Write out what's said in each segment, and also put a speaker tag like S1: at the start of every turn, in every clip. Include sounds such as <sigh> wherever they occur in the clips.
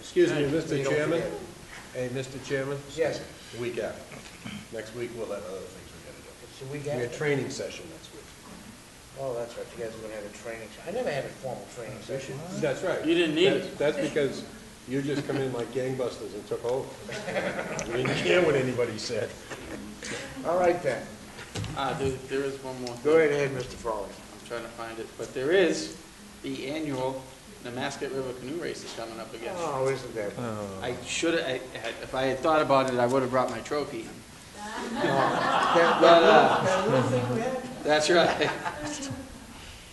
S1: Excuse me,
S2: So you
S1: Mr.
S2: don't
S1: Chairman.
S2: forget.
S1: Hey, Mr. Chairman?
S2: Yes.
S1: The Week after. Next week, we'll have other things we
S2: Should we
S1: gotta do. We
S2: get?
S1: got a training session next week.
S2: Oh, that's right, you guys are gonna have a training, se- I never had a formal training session.
S1: That's right.
S3: You didn't need
S1: That's-
S3: it.
S1: That's because you just come in like gangbusters and took over. You didn't care what anybody said.
S2: All right then,
S3: Ah, there, there is one more. thing.
S2: go right ahead, Mr. Frawley.
S3: I'm trying to find it, but there is the annual Nemasket River Canoe Race is coming up again.
S2: Oh, isn't that,
S1: Uh.
S3: I should, I, had- if I had thought about it, I would have brought my trophy.
S2: that, that
S3: But, uh,
S2: that little thing we had?
S3: that's right.
S2: <laughs>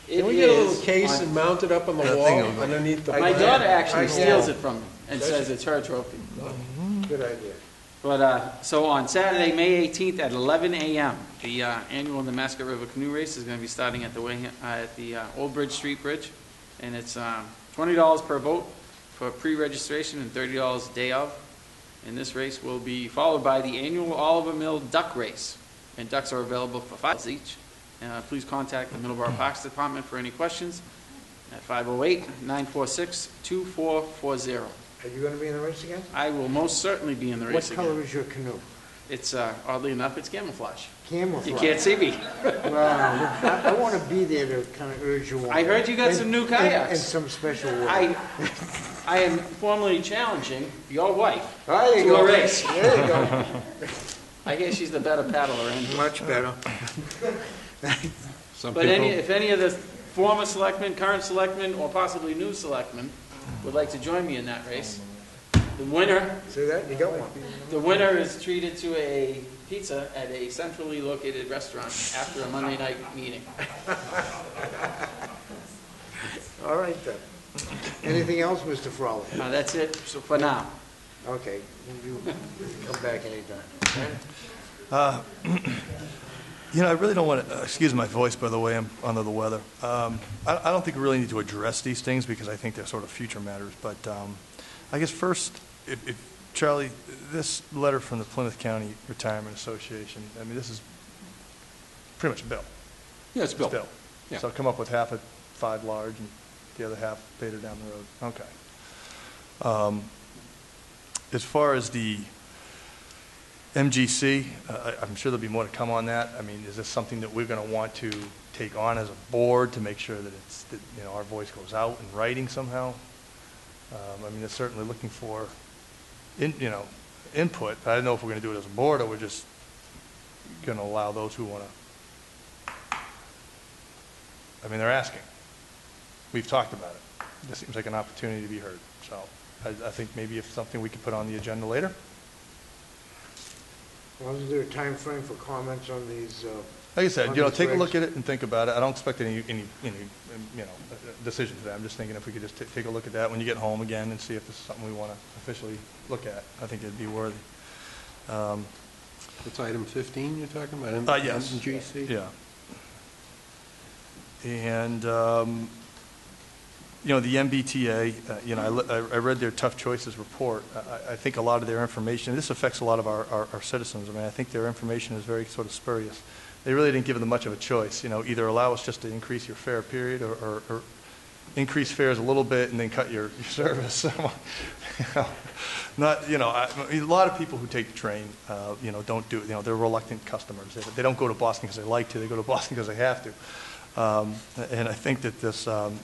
S3: It
S1: Can we get a
S3: is
S1: little case
S3: on-
S1: and mount it up on the
S4: That
S1: wall
S4: thing over there.
S1: underneath the.
S3: My
S1: plant?
S3: daughter actually
S2: I-
S3: steals
S2: yeah.
S3: it from me and says it's her trophy.
S2: Good idea.
S3: But, uh, so on Saturday, May 18th at 11 a.m., the uh, annual Nemasket River Canoe Race is going to be starting at the, Wayha- uh, at the uh, Old Bridge Street Bridge, and it's um, $20 per boat for pre-registration and $30 day of. And this race will be followed by the annual Oliver Mill Duck Race, and ducks are available for $5 each. Uh, Please contact the Middleborough Parks Department for any questions at 508-946-2440.
S2: Are you gonna be in the race again?
S3: I will most certainly be in the
S2: What
S3: race again.
S2: color is your canoe?
S3: It's, uh, oddly enough, it's camouflage.
S2: Camouflage.
S3: You can't see me.
S2: Wow, I, I wanna be there to kinda urge you on.
S3: I heard you got
S2: And-
S3: some new
S2: and-
S3: kayaks.
S2: And some special work.
S3: I, I am formally challenging your wife.
S2: There you
S3: to a
S2: go.
S3: race.
S2: There you go.
S3: I guess she's the better paddler. And,
S2: Much better.
S4: Some
S3: but any,
S4: people,
S3: if any of the former selectmen, current selectmen, or possibly new selectmen would like to join me in that race, the winner,
S2: See that, you got one.
S3: the winner is treated to a pizza at a centrally located restaurant after a Monday night meeting.
S2: All right then. Anything else, Mr. Frawley?
S3: Uh, that's it for now.
S2: Okay, you come back anytime.
S4: you know, I really don't want to, excuse my voice, by the way, I'm under the weather. Um, I I don't think we really need to address these things because I think they're sort of future matters, but um, I guess first, if, if- Charlie, this letter from the Plymouth County Retirement Association, I mean, this is pretty much a bill.
S5: Yeah, it's built.
S4: Bill.
S5: Yeah.
S4: So come up with half at five large and the other half later down the road. Okay. Um, As far as the MGC, uh, I- I'm sure there'll be more to come on that. I mean, is this something that we're going to want to take on as a board to make sure that it's, that, you know, our voice goes out in writing somehow? Um, I mean, it's certainly looking for, in you know, input. I don't know if we're going to do it as a board or we're just going to allow those who want to I mean, they're asking. We've talked about it. This seems like an opportunity to be heard. So I, I think maybe if something we could put on the agenda later.
S2: Well, is there a time frame for comments on these, uh,
S4: Like I said, you know,
S2: On these
S4: take a look at
S2: regs.
S4: it and think about it. I don't expect any, any, any, um, you know, uh, uh, decision today. I'm just thinking if we could just ta- take a look at that when you get home again and see if this is something we want to officially look at. I think it'd be worthy. Um,
S1: That's item fifteen you're talking about?
S4: Uh, yes.
S1: MGC?
S4: Yeah. And, um, you know, the MBTA, uh, you know, I li- I, I read their Tough Choices report. I- I, I think a lot of their information, this affects a lot of our, our- our citizens. I mean, I think their information is very sort of spurious. They really didn't give them much of a choice, you know, either allow us just to increase your fare period or, or, or increase fares a little bit and then cut your, your service. <laughs> Not, you know, I, I mean, a lot of people who take the train, uh, you know, don't do, you know, they're reluctant customers. They, they don't go to Boston because they like to, they go to <laughs> Boston because they have to. Um, and I think that this, um,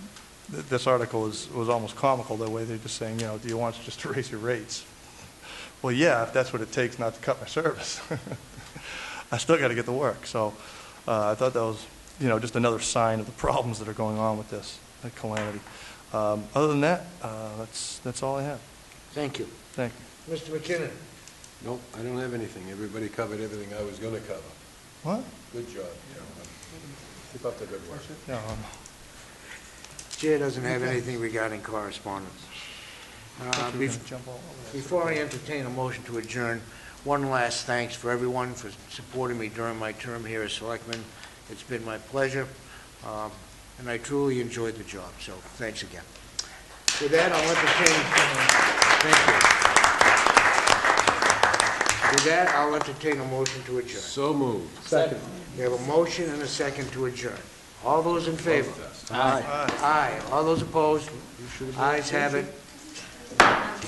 S4: th- this article is, was almost comical, the way they're just saying, you know, do you want us just to <laughs> raise your rates? Well, yeah, if that's what it takes not to cut my service. <laughs> I still got to get to work. So uh, I thought that was, you know, just another sign of the problems that are going on with this uh, calamity. Um, Other than that, uh, that's, that's all I have.
S2: thank you.
S4: Thank you.
S2: Mr. McKinnon?
S1: Nope, I don't have anything. Everybody covered everything I was gonna cover.
S4: What?
S1: Good job, gentlemen. Keep up the good work.
S4: No, um,
S2: Chair doesn't have anything regarding correspondence. Uh,
S4: we're
S2: bef-
S4: gonna jump all over that.
S2: Before I entertain a motion to adjourn, one last thanks for everyone for supporting me during my term here as selectman. It's been my pleasure, um, and I truly enjoyed the job, so thanks again. With that, I'll entertain, thank you. With that, I'll entertain a motion to adjourn.
S1: So moved.
S2: We have a motion and a second to adjourn. All those in favor? Aye. Aye. All those opposed? Ayes have it.